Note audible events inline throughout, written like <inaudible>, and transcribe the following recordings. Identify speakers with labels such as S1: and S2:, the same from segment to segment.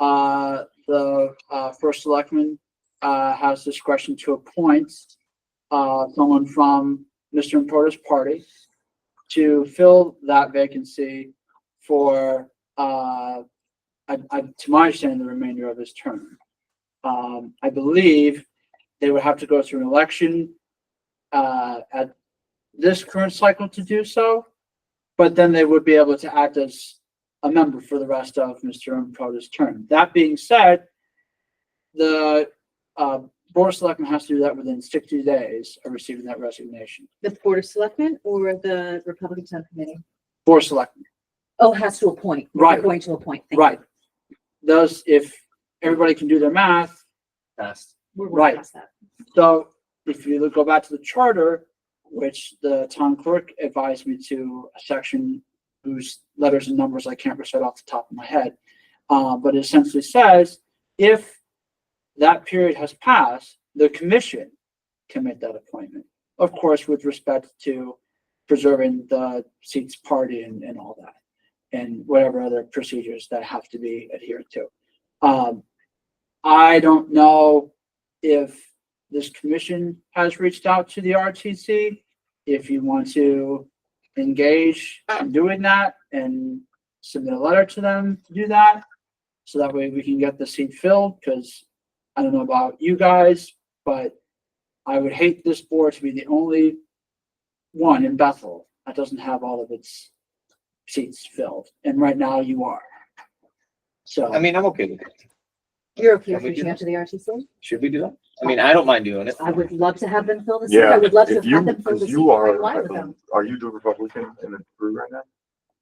S1: Uh, the, uh, first selectman, uh, has discretion to appoint, uh, someone from Mr. Porter's party to fill that vacancy for, uh, I, I, to my understanding, the remainder of his term. Um, I believe they would have to go through an election, uh, at this current cycle to do so. But then they would be able to act as a member for the rest of Mr. Improta's term. That being said, the uh, Board of Selectmen has to do that within sixty days of receiving that resignation.
S2: The Board of Selectmen or the Republican Subcommittee?
S1: Board of Selectmen,
S2: Oh, has to appoint. We're
S1: Right.
S2: Going to appoint. Thank you.
S1: right. Thus, if everybody can do their math,
S3: Passed.
S2: We're
S1: Right.
S2: way past that.
S1: so if you look- go back to the charter, which the town clerk advised me to a section whose letters and numbers I can't recite off the top of my head. Uh, but it essentially says, if that period has passed, the commission can make that appointment. Of course, with respect to preserving the seats party and, and all that. And whatever other procedures that have to be adhered to. Um, I don't know if this commission has reached out to the RTC. If you want to engage in doing that and submit a letter to them to do that. So that way we can get the seat filled, because I don't know about you guys, but I would hate this board to be the only one in Bethel that doesn't have all of its seats filled. And right now you are. So,
S3: I mean, I'm okay with it.
S2: You're okay
S3: Can
S2: with
S3: we do
S2: reaching out to the RTC?
S3: Should we do that? I mean, I don't mind doing it.
S2: I would love to have them fill the seat.
S4: Yeah,
S2: I would love to have
S4: if you,
S2: them fill the
S4: because
S2: seat.
S4: you
S2: right
S4: are,
S2: along
S4: I
S2: with them.
S4: believe- are you the Republican in the group right now?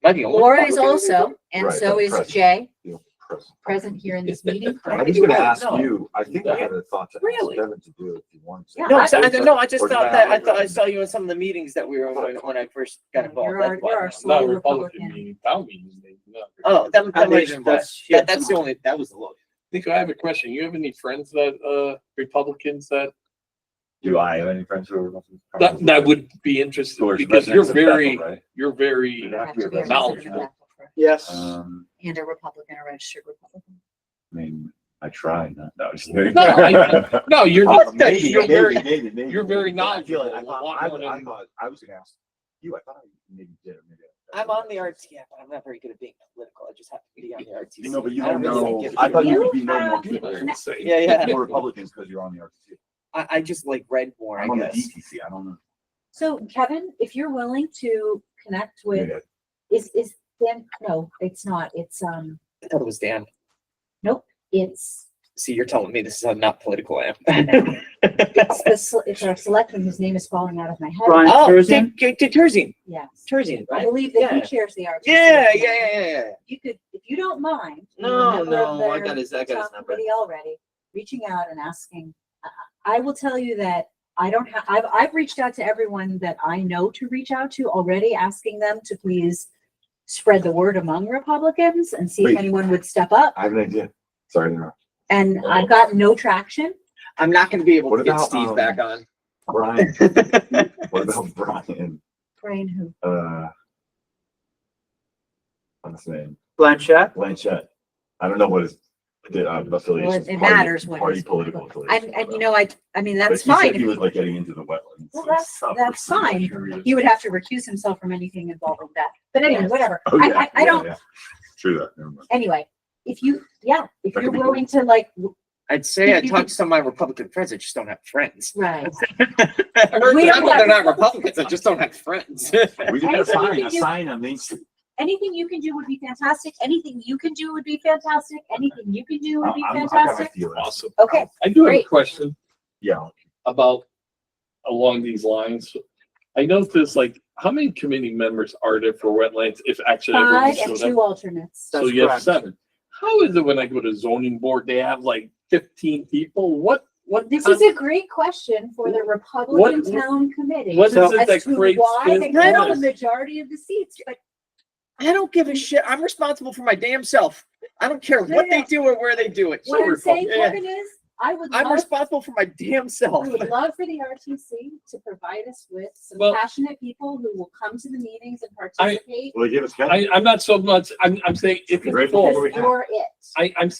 S3: Am I the only
S2: Laura is
S3: Republican?
S2: also, and
S4: Right,
S2: so
S4: but
S2: is
S4: present.
S2: Jay,
S4: You press.
S2: present here in this
S3: Is that-
S2: meeting.
S4: I was gonna ask
S3: No.
S4: you, I think I had a thought to ask
S3: Really?
S4: Devin to do it if you want to.
S2: Yeah,
S3: No, I, I, no, I just
S4: Or
S3: thought
S4: did
S3: that, I
S4: have it
S3: thought I
S4: written?
S3: saw you in some of the meetings that we were in when, when I first got
S2: No,
S3: involved.
S2: you're
S3: That's
S2: our-
S3: why.
S2: you're our
S3: No.
S2: sole
S5: Not Republican
S2: Republican.
S5: meeting, town meetings. they- no.
S3: Oh, that, that
S1: That
S3: might
S1: makes-
S3: have been why.
S1: that's-
S3: That, that's the only, that was the lowest.
S5: Nico, I have a question. You have any friends that, uh, Republicans that,
S4: Do I have any friends who are? Republican?
S5: that, that would be interested
S4: Or
S5: because you're
S4: residents Oh. of Bethel,
S5: very,
S4: right?
S5: you're very,
S4: Yeah.
S2: Have to be a resident of
S5: Knowledgeable.
S2: Bethel for-
S1: yes.
S4: Um,
S2: And a Republican, a registered Republican.
S4: I mean, I tried, not, no, I'm just
S5: No,
S4: <laughs>
S5: I- no, you're,
S4: Uh,
S5: not- <laughs>
S4: Maybe,
S5: you're
S4: maybe,
S5: very,
S4: maybe, maybe.
S5: you're very
S4: maybe. I feel like I
S5: knowledgeable.
S4: thought, I
S5: Why
S4: I
S5: wouldn't-
S4: thought, I was gonna ask you, I thought I maybe did, or maybe. I-
S3: I'm on the RTF, but I'm not very good at being political. I just happen to be on the RTC.
S4: You know, but you
S3: I
S4: don't
S3: really
S4: know,
S3: get it.
S4: I thought you
S2: You
S4: would be no
S2: <laughs>
S4: more
S2: have-
S4: people.
S2: No.
S3: Yeah, yeah.
S4: More Republicans because you're on the RTC.
S3: I, I just like read more, I
S4: I'm on the
S3: guess.
S4: DTC, I don't know.
S2: So Kevin, if you're willing to connect with,
S4: Maybe I-
S2: is, is, then, no, it's not. It's, um,
S3: I thought it was Dan.
S2: it's,
S3: See, you're telling me this is how not political I <laughs> am.
S2: it's the, sel- it's our selectman whose name is falling out of my head.
S1: Brian
S3: Oh,
S1: Terzine?
S3: Dick, Dick Terzine,
S2: Yes.
S3: Terzine,
S2: I
S3: right?
S2: believe that
S3: Yeah.
S2: he chairs the RTC.
S3: Yeah, yeah, yeah, yeah, yeah.
S2: You could, if you don't mind. you're a
S3: No,
S2: member of
S3: no, I
S2: their
S3: got his, I got his
S2: town
S3: number.
S2: committee Already reaching out and asking, I- I I will tell you that I don't have, I've, I've reached out to everyone that I know to reach out to already, asking them to please spread the word among Republicans and see if
S4: Wait.
S2: anyone would step up.
S4: I have an idea. Sorry to interrupt.
S2: And I've got no traction.
S3: I'm not gonna be able
S4: What
S3: to get
S4: about,
S3: Steve
S4: um,
S3: back on.
S2: <laughs>
S4: Brian, what about Brian,
S2: Brian, who?
S4: uh, what's his name?
S1: Blanchett?
S4: Blanchette. I don't know what his uh, affiliation.
S2: Well,
S4: is,
S2: it- it
S4: party-
S2: matters what
S4: Party
S2: his
S4: political.
S2: And,
S4: affiliation,
S2: and you
S4: but-
S2: know, I, I mean,
S4: but
S2: that's
S4: he said
S2: fine.
S4: He was like getting into the wetlands.
S2: Well,
S4: and
S2: that's-
S4: stuff.
S2: that's
S4: So I'm
S2: fine.
S4: curious.
S2: He would have to recuse himself from anything involved with that. But anyway,
S3: Yes.
S2: whatever.
S4: Oh,
S2: I,
S4: yeah,
S2: I, I
S4: yeah,
S2: don't,
S4: yeah. True that,
S2: <laughs>
S4: never mind.
S2: anyway, if you, yeah, if
S4: That could
S2: you're
S4: be cool.
S2: willing to like, w-
S3: I'd say I <laughs>
S2: You
S3: talked to some of my Republican friends, I just don't have friends. <laughs>
S2: right.
S3: I heard
S2: We
S3: that,
S2: don't
S3: but
S2: have
S3: They're not Republicans, I just don't have friends. <laughs>
S4: We did have a
S2: Anything we
S4: sign,
S2: can
S4: a
S2: do-
S4: sign on Main Street.
S2: Anything you can do would be fantastic. Anything you can do would be fantastic. Anything you can do
S4: I'm,
S2: would be
S4: I'm- I got my
S2: fantastic.
S4: feelings.
S5: awesome.
S2: Okay,
S5: I do have a
S2: Great.
S5: question.
S4: Yeah,
S5: about along these lines. I noticed like, how many committee members are there for wetlands if actually everyone
S2: five and
S5: showed up?
S2: two alternates.
S5: So you have seven. How is it when I go to zoning board, they have like fifteen people? What, what?
S2: This
S5: con-
S2: is a great question for the Republican
S5: What-
S2: Town Committee.
S5: What is it
S2: As
S5: that
S2: to
S5: creates
S2: why they got the
S5: this?
S2: majority of the seats, but
S3: I don't give a shit, I'm responsible for my damn self. I don't care
S2: No,
S3: what
S2: no.
S3: they do or where they do it.
S2: what I'm saying,
S3: Yeah.
S2: Kevin, is I would
S3: I'm
S2: love,
S3: responsible for my damn self.
S2: I would love for the RTC to provide us with some
S5: Well-
S2: passionate people who will come to the meetings and
S5: I-
S2: participate.
S4: well, they gave us.
S5: I, I'm not so much, I'm, I'm saying if
S4: Right
S5: it's
S4: before
S5: full,
S4: we-
S2: Because you're it.
S5: I, I'm